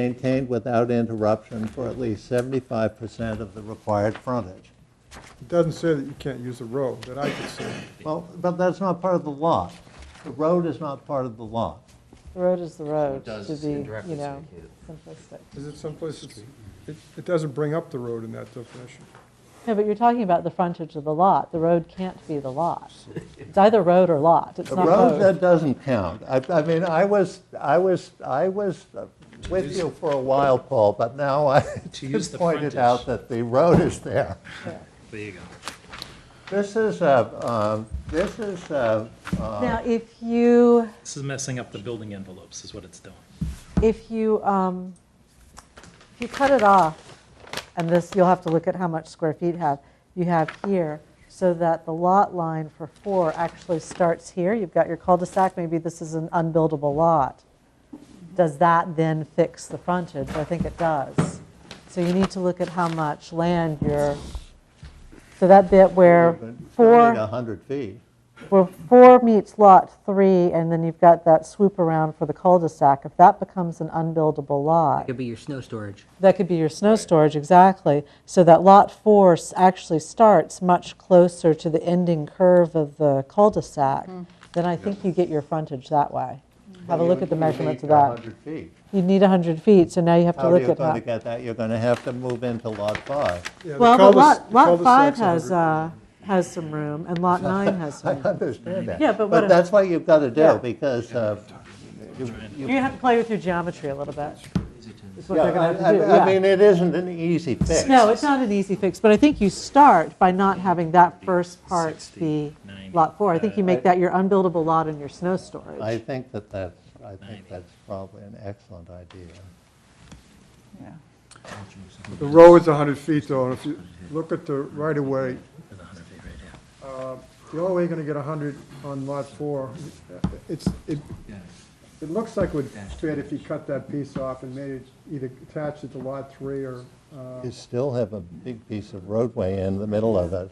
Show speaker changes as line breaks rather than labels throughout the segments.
maintained without interruption for at least 75% of the required frontage.
It doesn't say that you can't use a road, that I could see.
Well, but that's not part of the lot. The road is not part of the lot.
The road is the road,
does
to be,
indirectly
you know,
indicate
simplistic.
Is it someplace, it's- it, it doesn't bring up the road in that definition.
No, but you're talking about the frontage of the lot. The road can't be the lot. It's either road or lot. It's
A
not
road
both.
that doesn't count. I, I mean, I was, I was, I was with you for a while, Paul, but now I
To use the
pointed
frontage.
out that the road is there.
There you go.
This is a, um, this is a,
Now, if you,
This is messing up the building envelopes, is what it's doing.
if you, um, if you cut it off, and this, you'll have to look at how much square feet have, you have here, so that the lot line for four actually starts here. You've got your cul-de-sac, maybe this is an unbuildable lot. Does that then fix the frontage? I think it does. So you need to look at how much land you're, so that bit where four.
100 feet.
Well, four meets lot three, and then you've got that swoop around for the cul-de-sac. If that becomes an unbuildable lot,
Could be your snow storage.
that could be your snow storage, exactly. So that lot four s- actually starts much closer to the ending curve of the cul-de-sac. Then I think you get your frontage that way. Have a look at the measurements of that.
100 feet.
You'd need 100 feet, so now you have to
How are
look
you
at
going to
that.
get that? You're going to have to move into Lot 5.
Yeah, the
Well, but
cul-de-
lot,
the
lot five
cul-de-sac's a
has,
hundred-
uh, has some room, and lot nine has some. room.
understand that.
Yeah, but what if-
that's what you've got to do,
Yeah.
because uh, you... you-
You have to play with your geometry a little bit. Is what
Yeah,
they're
I-
going to
I-
have to do,
I
yeah.
mean, it isn't an easy fix.
No, it's not an easy fix, but I think you start by not having that first part be
90,
Lot 4. I think you make that your unbuildable lot and your snow
I
storage.
think that that's, I think that's probably an excellent idea.
uh,
The road's 100 feet though, and if you look at the right-of-way, uh, the only way you're gonna get 100 on lot four, it's, it, it looks like it would fit if you cut that piece off and made it, either attached it to lot three or, uh,
You still have a big piece of roadway in the middle of it.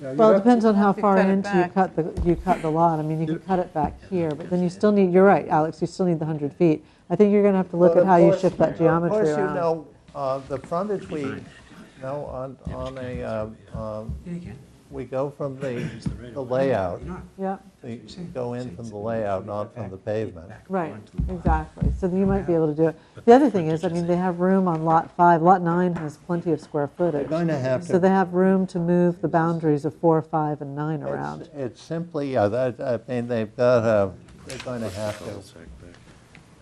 yeah, you'd
Well, it
have to-
depends on how far
cut it
into you
back.
cut the, you cut the lot. I mean, you could cut it back here, but then you still need, you're right, Alex, you still need the 100 feet. I think you're going to have to look
But
at
of
how you
course-
shift that geometry
Of course, you
around.
know, uh, the frontage we, no, on, on a, um, um,
Yeah, you can.
we go from the the layout,
Yeah,
we go in from the layout, not from the pavement.
right, exactly. So then you might be able to do it. The other thing is, I mean, they have room on Lot 5. Lot 9 has plenty of square footage.
You're going to have
So
to
they have room to move the boundaries of four, five, and nine around.
It's- It's simply, yeah, that, I mean, they've got, uh, they're going to have to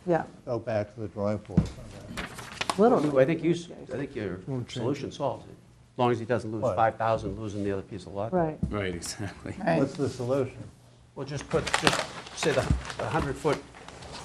Yeah,
go back to the drawing board.
I think you, s- I think your solution solves it, as long as he doesn't lose
What?
5,000, losing the other piece of lot.
right.
Right, exactly.
What's the solution?
Well, just put, just say the 100-foot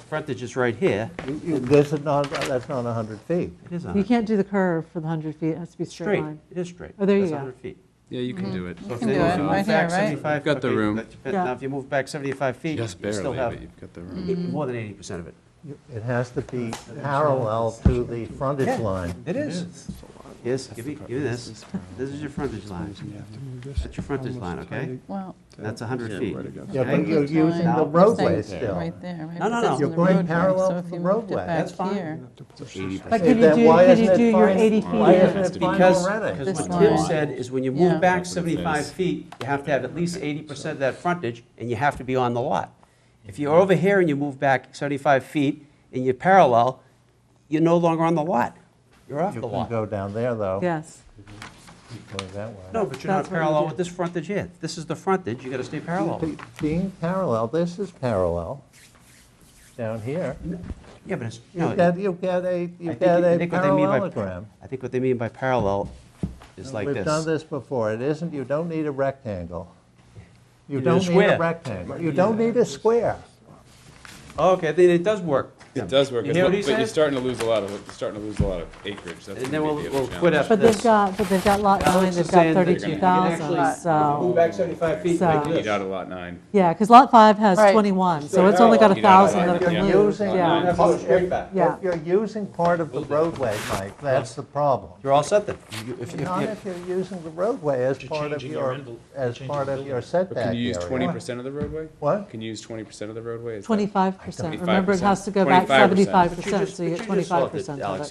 frontage is right here.
You- you- This is not, that's not 100 feet.
It is
You
100.
can't do the curve for the 100 feet, it has to be a straight
Straight,
line.
it is straight.
Oh, there you
That's
go.
100 feet.
Yeah, you can do it.
So if
Mm-hmm. can
they
do
move back
it, right here, right?
75
Got the
okay,
room.
that's- but
Yeah.
Now, if you move back 75 feet, you
Just
still
barely,
have
but you've got the room.
eight- more than 80% of it.
You- It has to be parallel to the frontage
Yeah.
line.
It is. Yes, give me, give me this. This is your frontage line. That's your frontage line, okay?
Well,
That's 100 feet.
Yeah, but
Okay?
you're using
Now,
the
you're
roadway
saying
still.
right there, right?
No, no,
It
no.
says
You're
in the
going
roadway,
parallel
so
to
if
the
you moved it
roadway.
back
That's fine.
here-
But
Hey,
could you
then
do,
why
could
isn't
you
it
do your
fine-
80 feet?
Why isn't
here?
it fine
Because,
already?
because
This
what Tim
line.
said is when you
Yeah.
move back
That's what it
75
is.
feet, you have to have at least 80% of that frontage, and you have to be on the lot. If you're over here and you move back 75 feet and you're parallel, you're no longer on the lot. You're off
You
the
can
lot.
go down there, though.
Yes,
Going that way.
No, but you're not
That's what you
parallel
do.
with this frontage here. This is the frontage, you gotta stay parallel.
Be- Being parallel, this is parallel down here.
Yeah, but it's, no.
You get, you get a,
I
you
think-
get
I
a
think what they mean by-
parallelogram.
I think what they mean by parallel is like
We've done this
this.
before. It isn't, you don't need a rectangle. You
You need a
don't need a
square.
rectangle. You don't need a square.
Okay, then it does work.
It does work,
You
but
hear
but
what he
you're
says?
starting to lose a lot of, you're starting to lose a lot of acreage, that's
And then
gonna be
we'll-
the
we'll
other
quit
challenge.
but they've
This-
got, but they've got lot
Alex
nine,
is
they've got
saying that you can
32,000,
actually-
so,
Move back 75 feet
So-
like
You Eat
this.
out a lot nine.
yeah, because lot five has
Right.
21, so it's only got a
You gotta
1,000 that
divide
it can
it, yeah.
lose,
Using-
yeah.
Have to go straight back.
Yeah.
If you're using part of the roadway, Mike, that's the problem.
You're all set then. You- if- if
Not
you-
if you're using the roadway as
You're
part of
changing your
your,
envel-
as
changing
part
the
of your
building.
setback
But can you use
area.
twenty percent of the roadway?
What?
Can you use twenty percent of the roadway? Is that-
25%, remember it
25%.
has to go back like
75%.
seventy-five
But you
percent,
just-
so you
but
get
you just solved
twenty-five
it,
percent of
Alex.
it.